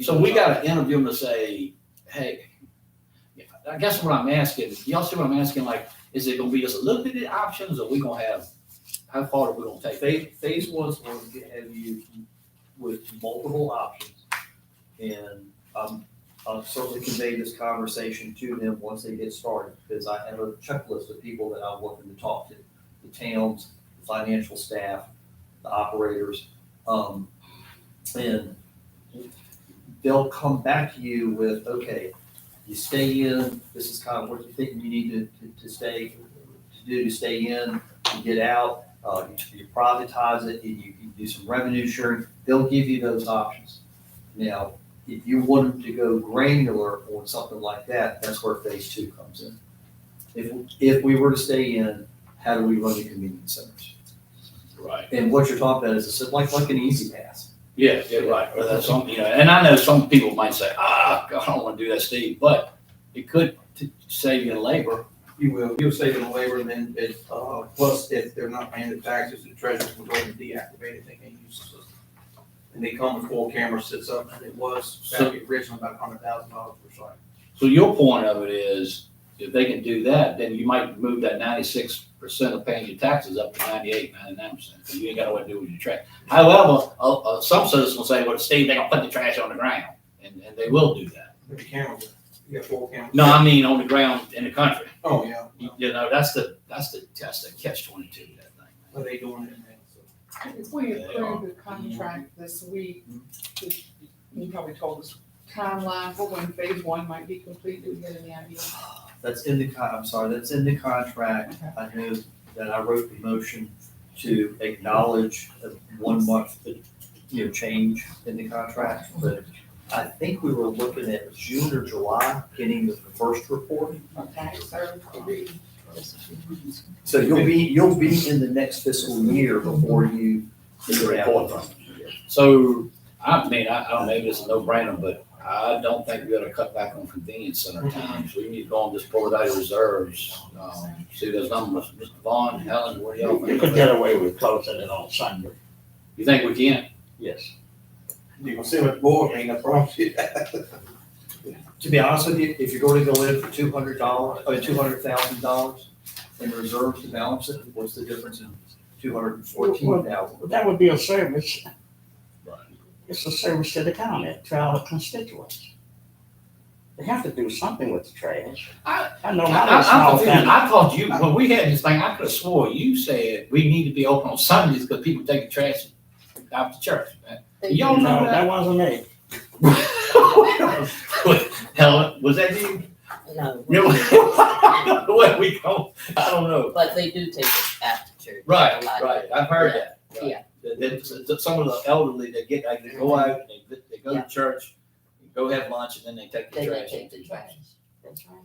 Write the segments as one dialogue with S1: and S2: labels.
S1: So we gotta interview them to say, hey, I guess what I'm asking, y'all see what I'm asking, like, is it gonna be just limited options or we gonna have, how far are we gonna take?
S2: Phase, phase one's going to have you with multiple options. And I'm, I'm certainly convey this conversation to them once they get started, because I have a checklist of people that I want them to talk to. The towns, the financial staff, the operators, um, and they'll come back to you with, okay, you stay in, this is kind of what you think you need to, to, to stay, to do to stay in, to get out uh, you- you privatize it, and you can do some revenue sharing, they'll give you those options. Now, if you want them to go granular on something like that, that's where phase two comes in. If, if we were to stay in, how do we run the convenience centers?
S1: Right.
S2: And what you're talking about is it's like, like an easy pass.
S1: Yeah, yeah, right, or that's some, you know, and I know some people might say, ah, God, I don't wanna do that, Steve, but it could t- save you in labor.
S3: You will, you'll save them labor and then it, uh, plus if they're not paying the taxes, the treasurer will go and deactivate it, they can use the system. And they come with four camera sits up and it was,
S1: So-
S3: back at original about hundred thousand dollars per site.
S1: So your point of it is, if they can do that, then you might move that ninety-six percent of paying your taxes up to 98, 99 percent. You ain't got what to do with your trash. However, uh, uh, some citizens will say, well, Steve, they gonna put the trash on the ground, and, and they will do that.
S3: The cameras, you got four cameras.
S1: No, I mean, on the ground in the country.
S3: Oh, yeah,
S1: You you know, that's the, that's the test, the catch twenty-two, of that thing.
S3: but they doing it now, so.
S4: If we
S1: They are.
S4: approve the contract this week, you probably told us timeline for when phase one might be complete, do we get any idea?
S2: That's in the con, I'm sorry, that's in the contract.
S4: Okay.
S2: I know that I wrote the motion to acknowledge a one month, you know, change in the contract. But I think we were looking at June or July getting the first report.
S4: Okay, so, agree.
S2: So you'll be, you'll be in the next fiscal year before you.
S1: It's a report from. So, I mean, I, I don't, maybe it's a no-brainer, but I don't think we ought to cut back on convenience center
S5: Mm-hmm.
S1: times. We need to go on this Port Valley reserves, um, see those numbers, Mr. Vaughn, Helen, what do y'all
S5: You
S1: think?
S5: could
S1: about it?
S5: get away with closing it on Sunday,
S1: You think we can?
S5: yes.
S3: You gonna see what the board ain't, I promise you.
S2: To be honest with you, if you're going to go in for two hundred dollars, uh, two hundred thousand dollars in reserves to balance it, what's the difference in two hundred and fourteen thousand?
S5: But That would be a service. It's a service to the county, to our constituents. They have to do something with the trash.
S1: I-
S5: I know
S1: I,
S5: how
S1: I-
S5: it's
S1: I'm
S5: small
S1: confused.
S5: town.
S1: I thought you, when we had this thing, I could have swore you said we need to be open on Sundays because people take the trash out the church. Y'all know
S5: No,
S1: that?
S5: that wasn't it.
S1: Helen, was that you?
S6: No,
S1: Yeah, well, What we go, I don't know.
S6: but they do take it after church.
S1: Right,
S6: A lot.
S1: right, I've heard that. right.
S6: Yeah.
S1: That, that- that some of the elderly, they get, like, they go out, they, they go
S6: Yeah.
S1: to church, go have lunch, and then they take the
S6: They
S1: trash.
S6: don't take the trash. That's right.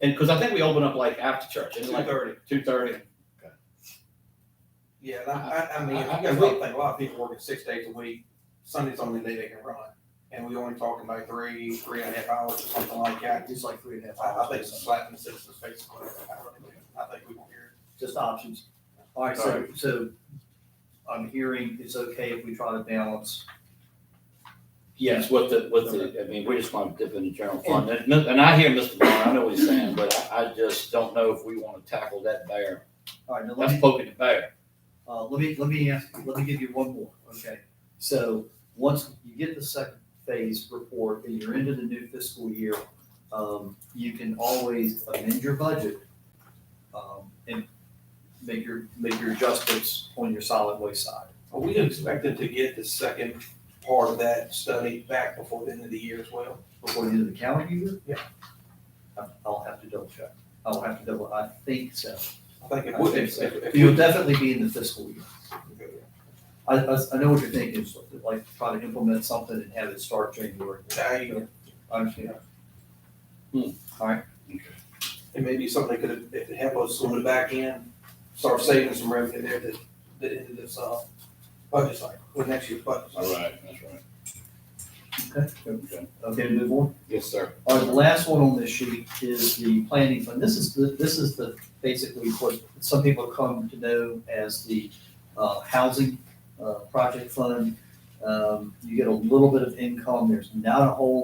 S1: And, cause I think we open up like after church, and
S3: Two
S1: like
S3: thirty.
S1: two thirty.
S3: Yeah, and I, I, I mean,
S1: I- I-
S3: I guess I think a lot of people working six days a week, Sunday's the only day they can run. And we only talking about three, three and a half hours or something like that.
S2: It's like three and a half
S3: I, I think
S2: hours.
S3: it's a slap in the citizen's face. I really do. I think we won't hear
S2: Just options. All right, so, so I'm hearing it's okay if we try to balance.
S1: Yes, with the, with the, I mean, we just want to dip in the general fund, and, and I hear Mr. Vaughn, I know what he's saying, but I, I just don't know if we want to tackle that bear.
S2: All right, now let me.
S1: That's poking the bear.
S2: Uh, let me, let me ask, let me give you one more, okay? So, once you get the second phase report and you're into the new fiscal year, um, you can always amend your budget, um, and make your, make your adjustments on your solid waste side.
S3: Are we expected to get the second part of that study back before the end of the year as well?
S2: Before the end of the calendar year?
S3: Yeah.
S2: I- I'll have to double check. I'll have to double, I think so.
S3: I think it
S2: I
S3: would,
S2: think
S3: if,
S2: so.
S3: if, if
S2: You'll
S3: you.
S2: definitely be in the fiscal year. I, I, I know what you're thinking, is like, try to implement something and have it start January.
S3: There you go.
S2: I understand.
S1: Hmm.
S2: All right,
S3: It may be something that could, that could help us on the back end, start saving some revenue there that, that ended this, uh, budget cycle, or next year's budget cycle.
S1: right, that's right.
S2: okay, okay, move on.
S1: Yes, sir.
S2: All right, the last one on this sheet is the planning fund. This is, the this is the, basically what some people come to know as the, uh, housing, uh, project fund. Um, you get a little bit of income, there's not a whole